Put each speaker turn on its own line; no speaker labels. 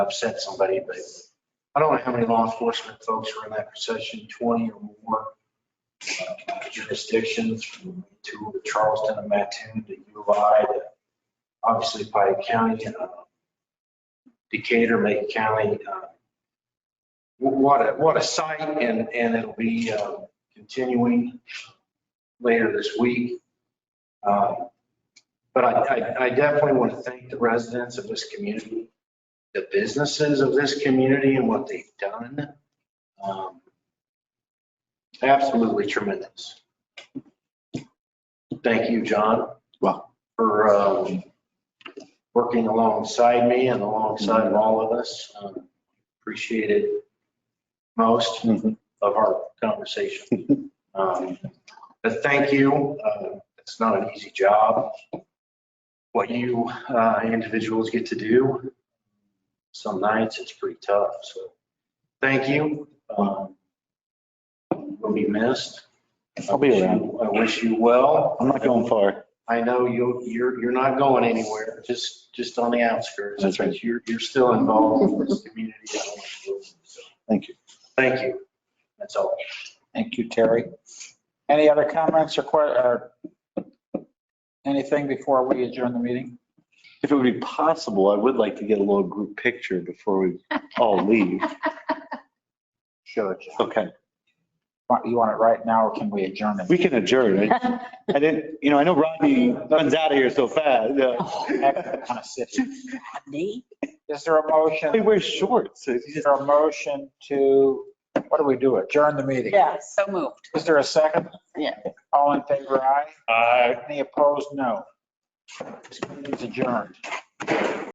upset somebody, but I don't know how many law enforcement folks are in that procession, 20 or more uh, jurisdictions, from two to Charleston and Mattoon to UI to obviously Pike County, uh, Decatur, Macon County. uh, wh- What a, what a sight and, and it'll be uh, continuing later this week. Uh, But I, I- I definitely want to thank the residents of this community the businesses of this community and what they've done. um, Absolutely tremendous. Thank you, John.
Well-
For um, working alongside me and alongside of all of us. Um, Appreciate it most
Mhm.
of our conversation. Um, But thank you. Uh, It's not an easy job. What you uh, individuals get to do some nights it's pretty tough, so thank you. Um, Will be missed.
I'll be around.
I wish you well.
I'm not going far.
I know you, you're, you're not going anywhere, just, just on the outskirts.
That's right.
But You're, you're still involved in this community. I don't want to lose you, so
Thank you.
Thank you. That's all.
Thank you, Terry. Any other comments or que, or anything before we adjourn the meeting?
If it would be possible, I would like to get a little group picture before we all leave.
Sure.
Okay,
You want it right now or can we adjourn it?
we can adjourn. I I didn't, you know, I know Rodney runs out of here so fast. Uh,
Kind
yeah.
of city. Is there a
He
motion,
wears shorts.
is there a motion to, what do we do, adjourn the meeting?
Yeah, so moved.
Is there a second?
Yeah.
All in favor, aye?
Aye.
Any opposed, no. It's adjourned.